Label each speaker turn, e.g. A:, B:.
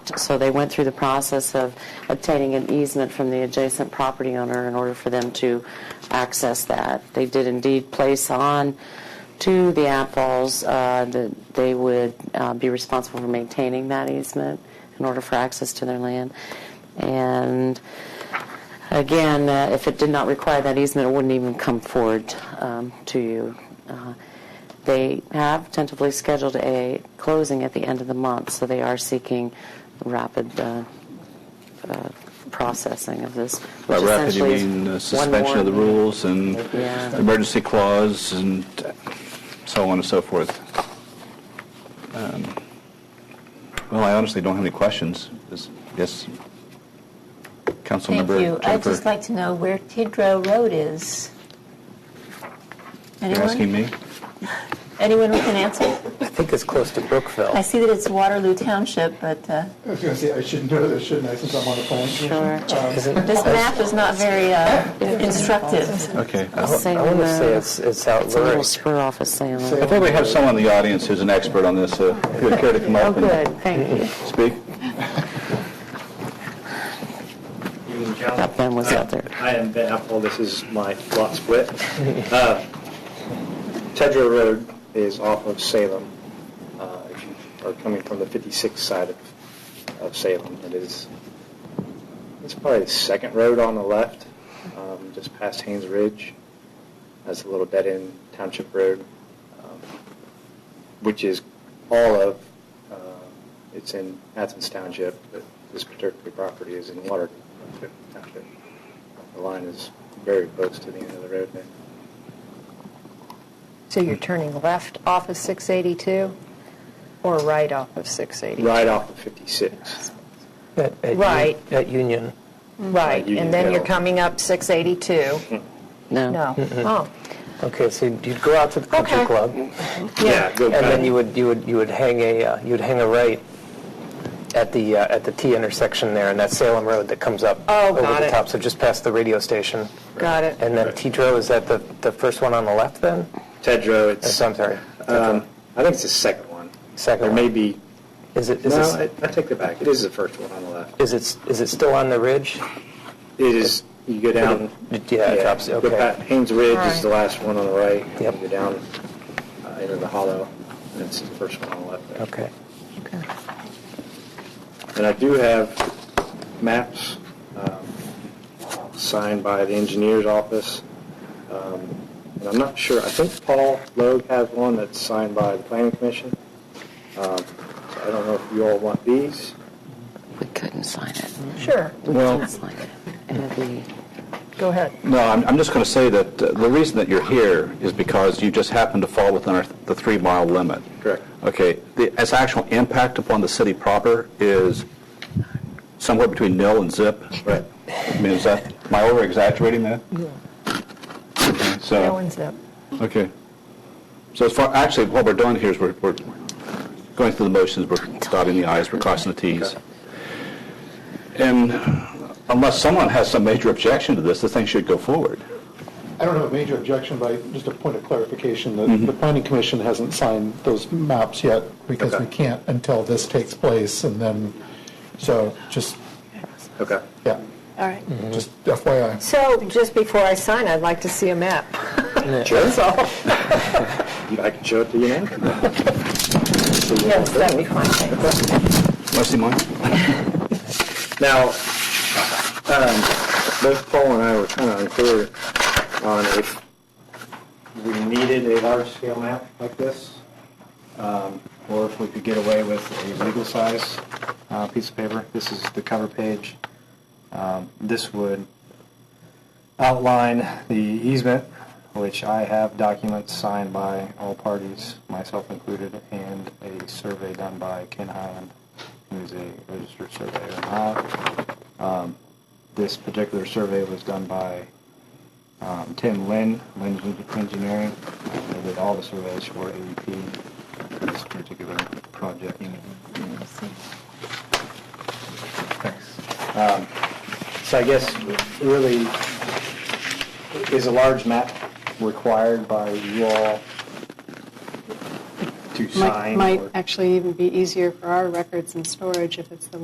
A: left, so they went through the process of obtaining an easement from the adjacent property owner in order for them to access that. They did indeed place on to the Apples uh, that they would uh, be responsible for maintaining that easement in order for access to their land. And Again, uh, if it did not require that easement, it wouldn't even come forward um, to you. Uh, They have tentatively scheduled a closing at the end of the month, so they are seeking rapid uh, uh, processing of this.
B: By
A: which
B: rapid, you
A: essentially is
B: mean uh,
A: one
B: suspension of the
A: more-
B: rules and
A: Yeah.
B: emergency clause and so on and so forth. Um, Well, I honestly don't have any questions. Is- Yes,
C: Thank you.
B: Councilmember
C: I'd
B: Jennifer,
C: just like to know where Tidrow Road is.
B: you're asking
C: Anyone?
B: me?
C: Anyone who can answer?
D: I think it's close to
C: I
D: Brookville.
C: see that it's Waterloo Township, but uh,
E: I was going to say, I should know this, shouldn't I, since I'm on the planning commission?
A: Sure.
E: Um,
D: Isn't,
C: this map is not very uh, instructive.
B: Okay. I
D: I
B: hope-
D: I want to say it's, it's out
A: uh, It's a little
D: Lurie.
A: spur off of Salem.
B: I think we have someone in the audience who's an expert on this. uh, Who would care to come
A: Oh,
B: up
A: good,
B: and
A: thank you.
B: speak?
F: Evening,
A: That
F: Council.
A: Ben was out there.
F: I am Ben Apple. This is my lot split. Uh, Tedrow Road is off of Salem. Uh, If you are coming from the 56th side of- of Salem, it is, it's probably the second road on the left, um, just past Haynes Ridge. That's a little dead-end township road, um, which is all of, uh, it's in Athens Township, but this particular property is in Water Township. The line is very close to the end of the road there.
G: So you're turning left off of 682 or right off of 682?
F: Right off of 56.
D: At- at Uni-
G: Right.
D: At Union.
G: Right,
F: Right, you-
G: and then
F: you
G: you're
F: go.
G: coming up 682? No. Oh,
D: Okay, so you'd go out to the country
G: Okay.
D: club,
F: Yeah. go
D: and
F: back.
D: then you would, you would, you would hang a, uh, you'd hang a right at the, uh, at the T intersection there, and that's Salem Road that comes up
G: Oh,
D: over
G: got
D: the
G: it.
D: top, so just past the radio station.
G: got it.
D: And then Tidrow, is that the, the first one on the left then?
F: Tedrow,
D: Yes,
F: it's,
D: Oh, I'm sorry.
F: um, I think it's the second one.
D: Second
F: Or
D: one.
F: maybe,
D: Is it, is
F: no,
D: it,
F: I I take that back. It is the first one on the left.
D: is it, is it still on the ridge?
F: It is, you go down.
D: Yeah, it drops,
F: go
D: okay.
F: back- Haynes Ridge is
G: Alright.
F: the last one on the right. and
D: Yep.
F: You go down uh, into the hollow, and it's the first one on the left there.
D: Okay.
F: And I do have maps um, signed by the engineer's office. Um, And I'm not sure, I think Paul Logue has one that's signed by the planning commission. Um, so I don't know if you all want these.
A: We couldn't sign it.
G: Sure,
A: We
B: Well-
A: couldn't sign it. It would be-
G: go ahead.
B: No, I'm, I'm just going to say that uh, the reason that you're here is because you just happen to fall within our, the three-mile limit.
F: Correct.
B: Okay, the, its actual impact upon the city proper is somewhere between nil and zip.
F: Right.
B: I mean, is that, am I over-exaggerating that? Yeah.
G: No
B: So,
G: one's up.
B: okay. So as far, actually, what we're doing here is we're, we're going through the motions, we're dotting the i's, we're crossing the t's. And unless someone has some major objection to this, the thing should go forward.
E: I don't have a major objection, but I- just a point of clarification, the, the planning commission hasn't signed those maps yet because we can't until this takes place, and then, so just,
F: Okay.
E: yeah,
G: All right.
E: just FYI.
G: So just before I sign, I'd like to see a map.
F: Sure. I can show it to you now.
G: Yes, that'd be fine, thanks.
B: Want to see mine?
F: Now, um, both Paul and I were kind of unclear on if we needed a large-scale map like this, um, or if we could get away with a legal-size uh, piece of paper. This is the cover page. Um, This would outline the easement, which I have documents signed by all parties, myself included, and a survey done by Ken Highland, who's a registered surveyor in Ohio. Um, This particular survey was done by um, Tim Lynn, Lynn Engineering, who did all the surveys for AEP for this particular project. Thanks. Um, So I guess really, is a large map required by you all to sign?
H: Might
F: or-
H: actually even be easier for our records and storage if it's the